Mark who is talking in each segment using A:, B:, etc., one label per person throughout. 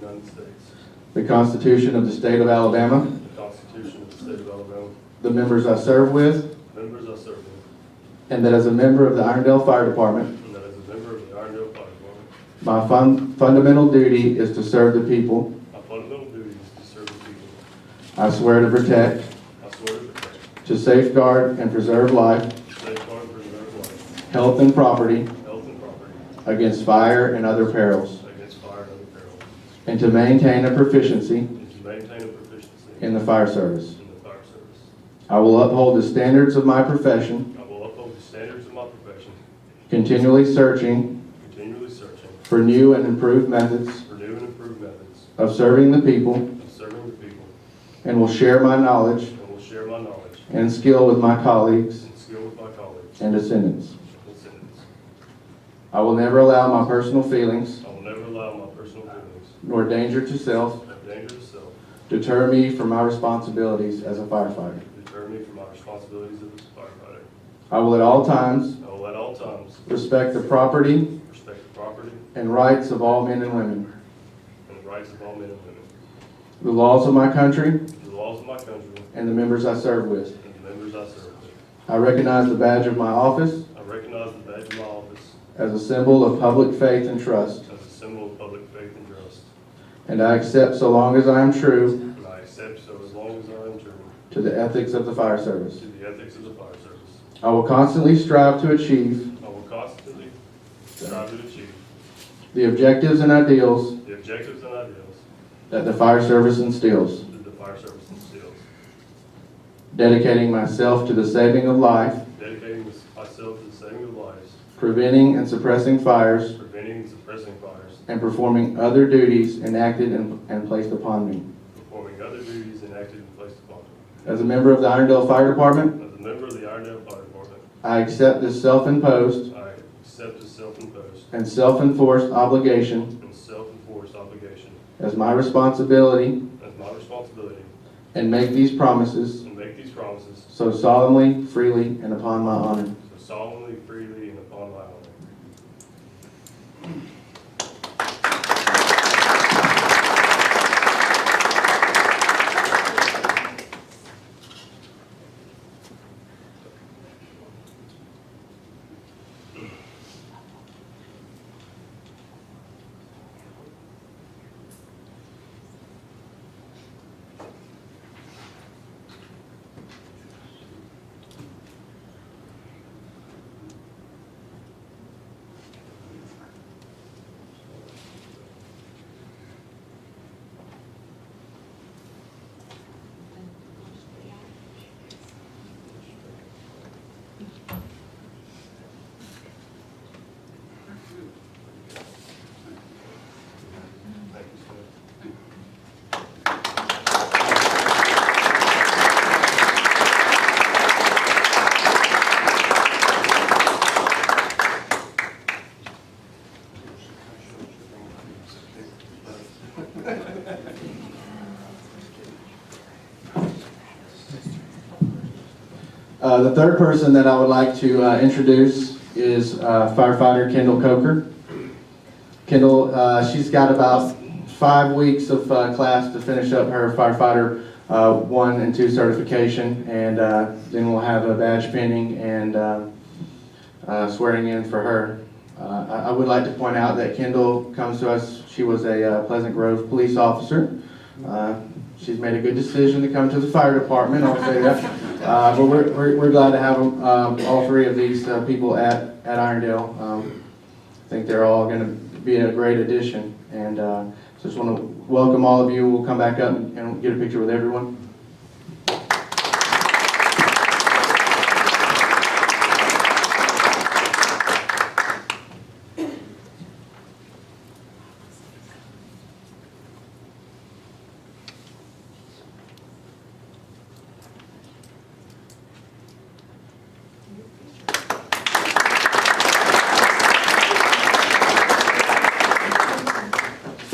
A: United States,
B: the Constitution of the State of Alabama,
A: the Constitution of the State of Alabama,
B: the members I serve with,
A: members I serve with,
B: and that as a member of the Irondale Fire Department,
A: and that as a member of the Irondale Fire Department,
B: my fun- fundamental duty is to serve the people.
A: my fundamental duty is to serve the people.
B: I swear to protect,
A: I swear to protect,
B: to safeguard and preserve life,
A: safeguard, and preserve life,
B: health, and property
A: health, and property
B: against fire and other perils,
A: against fire and other perils,
B: and to maintain a proficiency
A: and to maintain a proficiency in
B: in the fire service.
A: the fire service.
B: I will uphold the standards of my profession,
A: I will uphold the standards of my profession,
B: continually searching
A: continually searching
B: for new and improved methods
A: for new and improved methods
B: of serving the people,
A: of serving the people,
B: and will share my knowledge
A: and will share my knowledge
B: and skill with my colleagues
A: and skill with my colleagues
B: and descendants.
A: and citizens.
B: I will never allow my personal feelings
A: I will never allow my personal feelings
B: nor danger to self
A: or danger to self
B: deter me from my responsibilities as a firefighter.
A: to deter me from my responsibilities as a firefighter.
B: I will at all times
A: I will at all times
B: respect the property
A: respect the property
B: and rights of all men and women,
A: and the rights of all men and women,
B: the laws of my country,
A: the laws of my country,
B: and the members I serve with.
A: and the members I serve with.
B: I recognize the badge of my office
A: I recognize the badge of my office
B: as a symbol of public faith and trust,
A: as a symbol of public faith and trust,
B: and I accept so long as I am true
A: and I accept so as long as I am true
B: To the ethics of the fire service.
A: to the ethics of the fire service.
B: I will constantly strive to achieve
A: I will constantly strive to achieve
B: the objectives and ideals
A: the objectives and ideals
B: that the fire service instills,
A: that the fire service instills,
B: dedicating myself to the saving of life,
A: dedicating myself to the saving of lives,
B: preventing and suppressing fires,
A: preventing and suppressing fires,
B: and performing other duties enacted and and placed upon me.
A: performing other duties enacted and placed upon me.
B: As a member of the Irondale Fire Department,
A: As a member of the Irondale Fire Department,
B: I accept this self-imposed
A: I accept the self-imposed
B: and self-enforced obligation
A: and self-enforced obligation
B: as my responsibility
A: as my responsibility
B: and make these promises
A: and make these promises
B: so solemnly, freely, and upon my honor.
A: so solemnly, freely, and upon my honor. Thank you, sir.
B: Uh, The third person that I would like to uh, introduce is uh, firefighter Kendall Coker. Kendall, uh, she's got about five weeks of uh, class to finish up her firefighter uh, one and two certification, and uh, then we'll have a badge pinning and uh, uh, swearing in for her. Uh, I I would like to point out that Kendall comes to us, she was a uh, Pleasant Grove police officer. Uh, She's made a good decision to come to the fire department, I'll say that. Uh, But we're- we're we're glad to have um, all three of these uh, people at at Irondale. Um, I think they're all going to be a great addition, and uh, so just want to welcome all of you. We'll come back up and- and get a picture with everyone.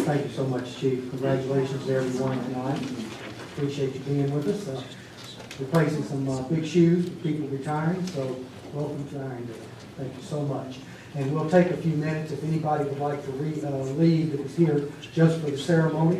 C: Thank you so much, Chief. Congratulations to everyone tonight. Appreciate you being with us. Uh, Replacing some uh, big shoes, with people retiring, so welcome to Irondale. Thank you so much. And we'll take a few minutes if anybody would like to re- uh, leave that was here just for the ceremony.